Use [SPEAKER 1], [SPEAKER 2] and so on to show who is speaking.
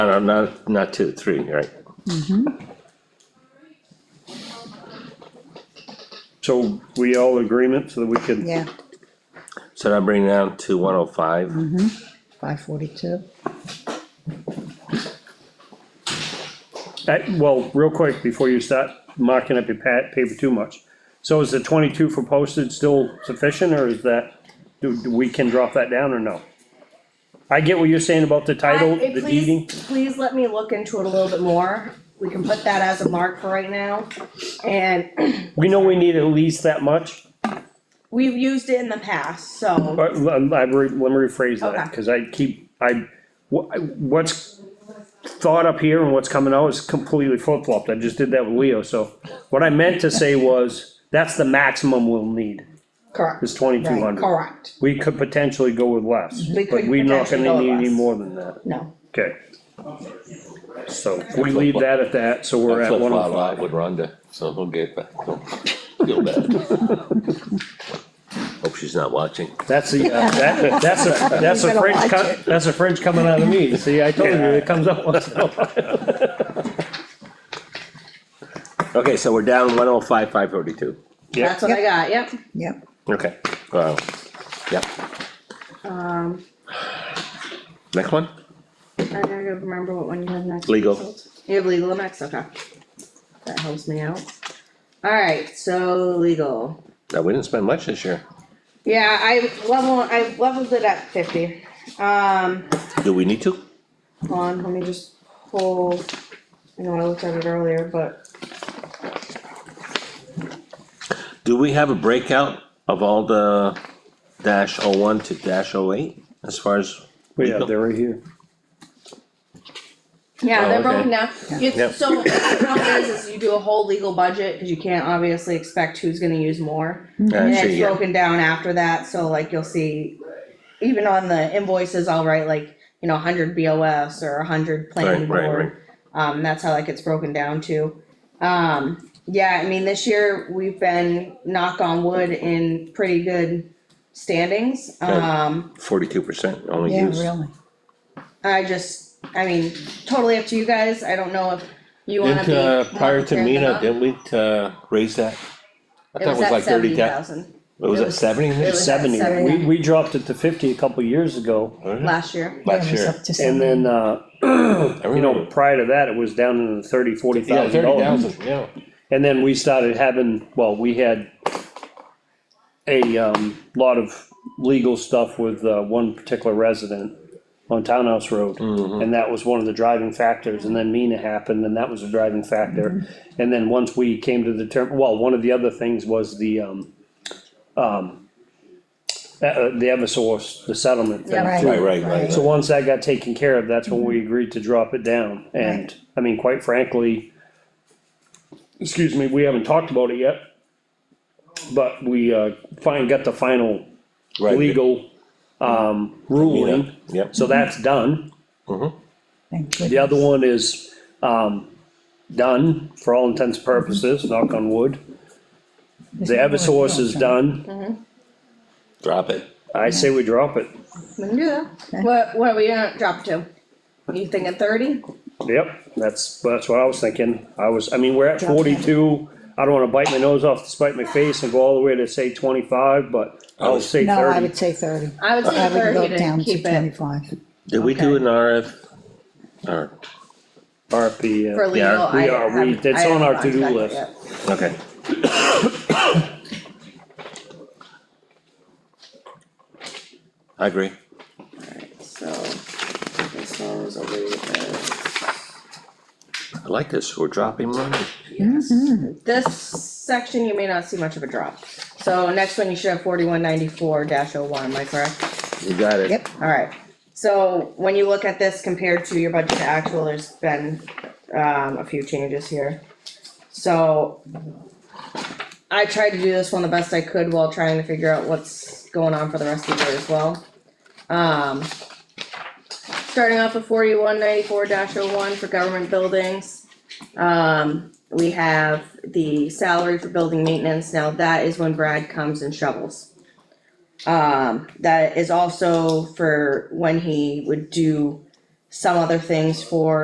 [SPEAKER 1] No, no, not, not two, three, right?
[SPEAKER 2] So we all agreement so that we could,
[SPEAKER 3] Yeah,
[SPEAKER 1] So now bring it down to one oh five.
[SPEAKER 3] five forty-two.
[SPEAKER 2] I- well, real quick, before you start marking up your pat, paper too much. So is the twenty-two for postage still sufficient, or is that, do, do we can drop that down or no? I get what you're saying about the title,
[SPEAKER 4] I- eh,
[SPEAKER 2] the
[SPEAKER 4] please-
[SPEAKER 2] deeding,
[SPEAKER 4] Please let me look into it a little bit more. We can put that as a mark for right now. And
[SPEAKER 2] we know we need at least that much,
[SPEAKER 4] we've used it in the past, so
[SPEAKER 2] but l- l- I re- let me rephrase
[SPEAKER 4] Okay.
[SPEAKER 2] that, cause I keep, I, wha- what's thought up here and what's coming out is completely flip-flopped, I just did that with Leo, so. What I meant to say was, that's the maximum we'll need,
[SPEAKER 4] correct,
[SPEAKER 2] is twenty-two hundred.
[SPEAKER 4] correct,
[SPEAKER 2] We could potentially go with less,
[SPEAKER 4] We
[SPEAKER 2] but
[SPEAKER 4] could
[SPEAKER 2] we're not
[SPEAKER 4] potentially
[SPEAKER 2] gonna
[SPEAKER 4] go with
[SPEAKER 2] need any
[SPEAKER 4] less.
[SPEAKER 2] more than that,
[SPEAKER 4] no.
[SPEAKER 2] okay? So we leave that at that, so we're at
[SPEAKER 5] Flip
[SPEAKER 2] one oh
[SPEAKER 5] flop
[SPEAKER 2] five.
[SPEAKER 5] out with Rhonda, so he'll get back, he'll feel bad.
[SPEAKER 1] Hope she's not watching.
[SPEAKER 2] That's the, uh, that, that's a, that's a
[SPEAKER 3] better
[SPEAKER 2] fringe
[SPEAKER 3] watch
[SPEAKER 2] cut, that's a fringe coming out of me, see, I told you, it comes out once in a while.
[SPEAKER 1] Okay, so we're down one oh five, five forty-two.
[SPEAKER 2] Yep.
[SPEAKER 4] That's what I got, yep.
[SPEAKER 3] Yep,
[SPEAKER 1] Okay, wow. Yep,
[SPEAKER 4] Um,
[SPEAKER 1] next one?
[SPEAKER 4] I gotta remember what one you have next.
[SPEAKER 1] Legal.
[SPEAKER 4] You have legal next, okay. That helps me out. Alright, so legal.
[SPEAKER 1] Now, we didn't spend much this year.
[SPEAKER 4] Yeah, I level, I leveled it at fifty. Um,
[SPEAKER 1] Do we need to?
[SPEAKER 4] hold on, let me just pull, I know I looked at it earlier, but
[SPEAKER 1] Do we have a breakout of all the dash oh one to dash oh eight as far as?
[SPEAKER 2] But yeah, they're right here.
[SPEAKER 4] Yeah,
[SPEAKER 1] Oh,
[SPEAKER 4] they're
[SPEAKER 1] okay.
[SPEAKER 4] broken down.
[SPEAKER 1] Yep.
[SPEAKER 4] It's, so what the problem is, is you do a whole legal budget, cause you can't obviously expect who's gonna use more. And
[SPEAKER 1] Actually,
[SPEAKER 4] it's
[SPEAKER 1] Mm-hmm. yeah.
[SPEAKER 4] broken down after that, so like you'll see, even on the invoices, I'll write like, you know, hundred BOS or hundred planning
[SPEAKER 1] Right, right,
[SPEAKER 4] board. Um, that's how that gets broken down to. Um, yeah, I mean, this year, we've been, knock on wood, in pretty good standings.
[SPEAKER 1] Good.
[SPEAKER 4] Um,
[SPEAKER 1] Forty-two percent only
[SPEAKER 3] yeah,
[SPEAKER 1] used.
[SPEAKER 3] really.
[SPEAKER 4] I just, I mean, totally up to you guys, I don't know if you wanna
[SPEAKER 1] Didn't,
[SPEAKER 4] be.
[SPEAKER 1] uh, prior to
[SPEAKER 4] monitoring
[SPEAKER 1] Mina,
[SPEAKER 4] them up.
[SPEAKER 1] didn't we, uh, raise that? I
[SPEAKER 4] It
[SPEAKER 1] thought
[SPEAKER 4] was at
[SPEAKER 1] like
[SPEAKER 4] seventy
[SPEAKER 1] thirty thousand.
[SPEAKER 4] thousand
[SPEAKER 1] Was
[SPEAKER 4] It
[SPEAKER 1] it
[SPEAKER 4] was-
[SPEAKER 1] seventy?
[SPEAKER 4] it was
[SPEAKER 2] Seventy, we,
[SPEAKER 4] 70.
[SPEAKER 2] we dropped it to fifty a couple years ago,
[SPEAKER 1] Mm-hmm.
[SPEAKER 4] last year,
[SPEAKER 3] Yeah,
[SPEAKER 1] Last
[SPEAKER 3] it was
[SPEAKER 1] year.
[SPEAKER 3] up to
[SPEAKER 2] and then, uh,
[SPEAKER 1] I
[SPEAKER 2] you know,
[SPEAKER 1] remember.
[SPEAKER 2] prior to that, it was down in the thirty, forty
[SPEAKER 5] Yeah,
[SPEAKER 2] thousand
[SPEAKER 5] thirty
[SPEAKER 2] dollars.
[SPEAKER 5] thousand, yeah.
[SPEAKER 2] And then we started having, well, we had a, um, lot of legal stuff with, uh, one particular resident on Townhouse Road. And that was one of the driving factors, and then Mina happened, and that was a driving factor. And then once we came to the term, well, one of the other things was the, um, um, uh, uh, the Eversource, the settlement thing.
[SPEAKER 4] Yeah,
[SPEAKER 1] Right,
[SPEAKER 3] Right,
[SPEAKER 1] right, right.
[SPEAKER 2] So once that got taken care of, that's when we agreed to drop it down, and,
[SPEAKER 3] Right.
[SPEAKER 2] I mean, quite frankly. Excuse me, we haven't talked about it yet. But we, uh, fine, got the final
[SPEAKER 1] Right.
[SPEAKER 2] legal, um, ruling,
[SPEAKER 1] Yep,
[SPEAKER 2] so that's done.
[SPEAKER 3] Thank
[SPEAKER 2] The
[SPEAKER 3] goodness.
[SPEAKER 2] other one is, um, done for all intents and purposes, knock on wood. The Eversource is done,
[SPEAKER 1] drop it.
[SPEAKER 2] I say we drop it,
[SPEAKER 4] we can do that, what, what are we gonna drop to? You thinking thirty?
[SPEAKER 2] Yep, that's, that's what I was thinking, I was, I mean, we're at forty-two, I don't wanna bite my nose off to spite my face and go all the way to say twenty-five, but I'll say
[SPEAKER 3] No, I
[SPEAKER 2] thirty.
[SPEAKER 3] would say thirty.
[SPEAKER 4] I would say
[SPEAKER 3] I would go
[SPEAKER 4] thirty
[SPEAKER 3] down
[SPEAKER 4] to
[SPEAKER 3] to
[SPEAKER 4] keep it
[SPEAKER 3] twenty-five.
[SPEAKER 1] Did we do an RF? Or,
[SPEAKER 2] RP,
[SPEAKER 4] for
[SPEAKER 2] uh,
[SPEAKER 4] legal,
[SPEAKER 1] Yeah,
[SPEAKER 4] I
[SPEAKER 2] we are- we-
[SPEAKER 4] haven't,
[SPEAKER 2] that's
[SPEAKER 4] I
[SPEAKER 2] on our
[SPEAKER 4] haven't
[SPEAKER 2] to-do
[SPEAKER 4] contacted
[SPEAKER 2] list.
[SPEAKER 4] yet.
[SPEAKER 1] okay, I agree.
[SPEAKER 4] So, this goes over to
[SPEAKER 1] I like this, we're dropping money.
[SPEAKER 4] this. This section, you may not see much of a drop, so next one, you should have forty-one ninety-four dash oh one, am I correct?
[SPEAKER 1] You got it.
[SPEAKER 3] Yep.
[SPEAKER 4] Alright, so when you look at this compared to your budget to actual, there's been, um, a few changes here. So. I tried to do this one the best I could while trying to figure out what's going on for the rest of the year as well. Um. Starting off with forty-one ninety-four dash oh one for government buildings. Um, we have the salary for building maintenance, now that is when Brad comes and shovels. Um, that is also for when he would do some other things for